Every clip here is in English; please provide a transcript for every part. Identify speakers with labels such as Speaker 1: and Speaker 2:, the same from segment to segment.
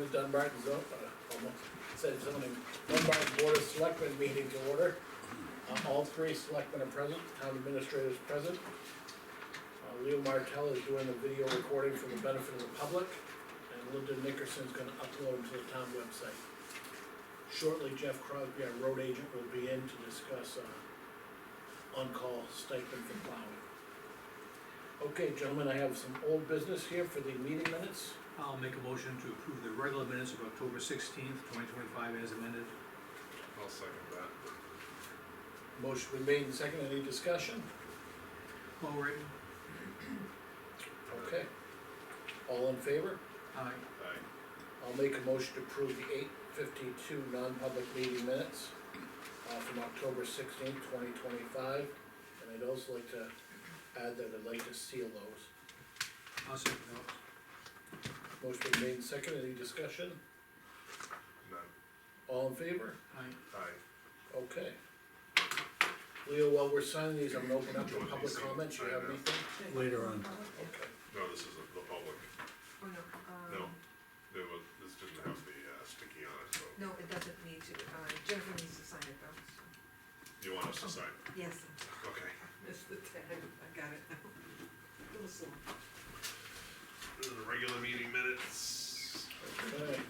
Speaker 1: Dunbarton's, uh, almost said something, Dunbarton Board of Selectmen meeting to order. Uh, all three selectmen are present, town administrator is present. Uh, Leo Martell is doing the video recording for the benefit of the public, and Linda Nickerson's gonna upload to the town website. Shortly, Jeff Crosby, our road agent, will be in to discuss, uh, on-call stipend for plowing. Okay, gentlemen, I have some old business here for the meeting minutes.
Speaker 2: I'll make a motion to approve the regular minutes of October sixteenth, twenty twenty-five as amended.
Speaker 3: I'll second that.
Speaker 1: Motion been made and seconded, any discussion?
Speaker 2: Paul Raiden?
Speaker 1: Okay. All in favor?
Speaker 2: Aye.
Speaker 3: Aye.
Speaker 1: I'll make a motion to approve the eight fifty-two non-public meeting minutes uh, from October sixteenth, twenty twenty-five. And I'd also like to add that I'd like to seal those.
Speaker 2: I'll second those.
Speaker 1: Motion been made and seconded, any discussion?
Speaker 3: None.
Speaker 1: All in favor?
Speaker 2: Aye.
Speaker 3: Aye.
Speaker 1: Okay. Leo, while we're signing these, I'm gonna open up to
Speaker 3: Join
Speaker 1: public
Speaker 3: these.
Speaker 1: comments, you
Speaker 3: I
Speaker 1: have
Speaker 3: know.
Speaker 1: anything?
Speaker 2: Later on.
Speaker 1: Okay.
Speaker 3: No, this is the public.
Speaker 4: Oh, no,
Speaker 3: No.
Speaker 4: um,
Speaker 3: There was, this didn't have the uh, sticky on it, so
Speaker 4: no, it doesn't need to, uh, Jennifer needs to sign it though, so,
Speaker 3: you want us to sign?
Speaker 4: yes,
Speaker 3: Okay.
Speaker 4: it's the tag, I got it now. Little slow.
Speaker 3: Uh, Regular meeting minutes.
Speaker 1: Okay.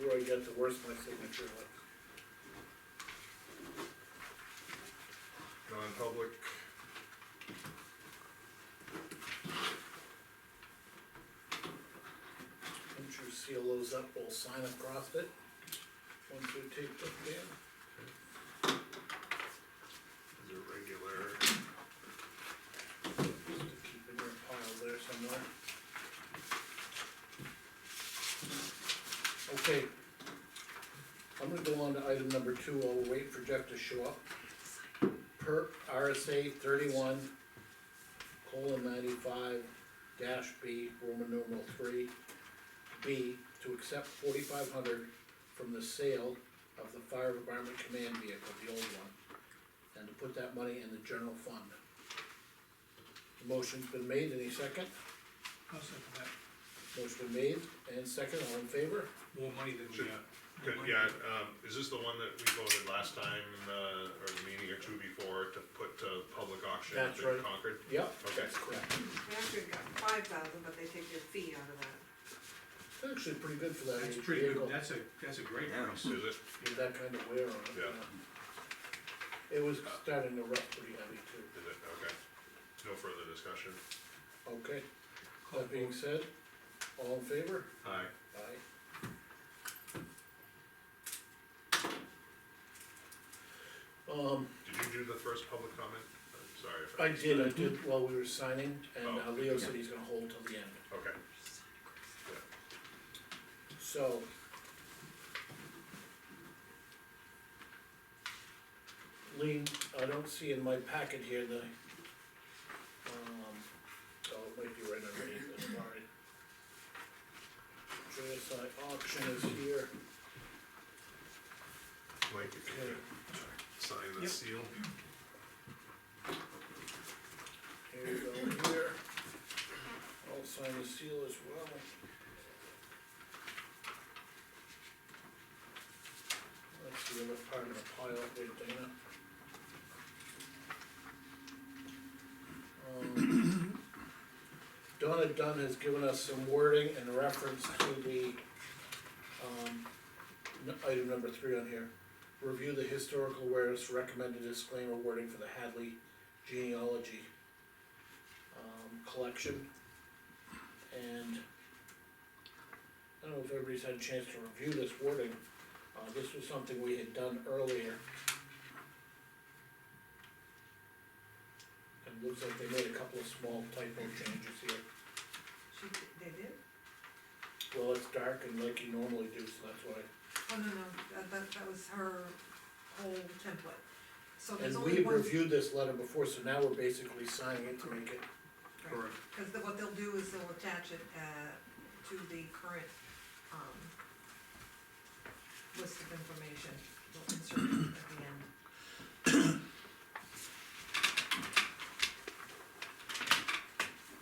Speaker 1: Leroy got the worst my signature was.
Speaker 3: Non-public.
Speaker 1: Once you seal those up, we'll sign across it. Once we take them down.
Speaker 3: Is it regular?
Speaker 1: Just to keep in your pile there somewhere. Okay. I'm gonna go on to item number two, I'll wait for Jeff to show up. Per RSA thirty-one, colon ninety-five, dash B, Roman numeral three. B, to accept forty-five hundred from the sale of the fire department command vehicle, the old one. And to put that money in the general fund. The Motion's been made, any second?
Speaker 2: I'll second that.
Speaker 1: Motion been made, and second, all in favor?
Speaker 2: More money than we
Speaker 3: Should-
Speaker 2: got.
Speaker 3: Good, yeah, um, is this the one that we voted last time, uh, or the meeting or two before to put to public auction up
Speaker 1: That's
Speaker 3: in
Speaker 1: right.
Speaker 3: Concord?
Speaker 1: Yep.
Speaker 3: Okay.
Speaker 1: That's correct.
Speaker 4: We actually got five thousand, but they take their fee out of that.
Speaker 1: It's Actually, pretty good for that
Speaker 2: That's
Speaker 1: age
Speaker 2: pretty
Speaker 1: vehicle,
Speaker 2: good, that's a, that's a great
Speaker 5: Yeah.
Speaker 2: price.
Speaker 3: Is it?
Speaker 1: with that kind of wear on it.
Speaker 3: Yeah.
Speaker 1: yeah. It was starting to rust pretty heavy too.
Speaker 3: Is it? Okay. No further discussion?
Speaker 1: Okay, that being said, all in favor?
Speaker 3: Aye.
Speaker 1: Aye. Um,
Speaker 3: Did you do the first public comment? I'm sorry if I.
Speaker 1: I did, I did while we were signing, and uh,
Speaker 3: Oh.
Speaker 1: Leo said he's gonna hold till the end.
Speaker 3: Okay.
Speaker 1: So. Lean, I don't see in my packet here the, um, oh, it might be right underneath it, sorry. JSI auction is here,
Speaker 3: Mike, if you could sign the
Speaker 1: Yep.
Speaker 3: seal.
Speaker 1: here you go, here. I'll sign the seal as well. That's the other part of the pile up there, Dana. Um, Donna Dunn has given us some wording in reference to the, um, n- item number three on here. Review the historical awareness recommended disclaimer wording for the Hadley genealogy, um, collection. And I don't know if everybody's had a chance to review this wording. Uh, this was something we had done earlier. And looks like they made a couple of small typo changes here.
Speaker 4: She, d- they did?
Speaker 1: Well, it's dark and like you normally do, so that's why.
Speaker 4: Oh, no, no, that, that, that was her whole template. So Oh, there's
Speaker 1: And
Speaker 4: only
Speaker 1: we
Speaker 4: one.
Speaker 1: reviewed this letter before, so now we're basically signing it to make it,
Speaker 2: Correct.
Speaker 4: Cause the- what they'll do is they'll attach it, uh, to the current, um, list of information, they'll insert it at the end.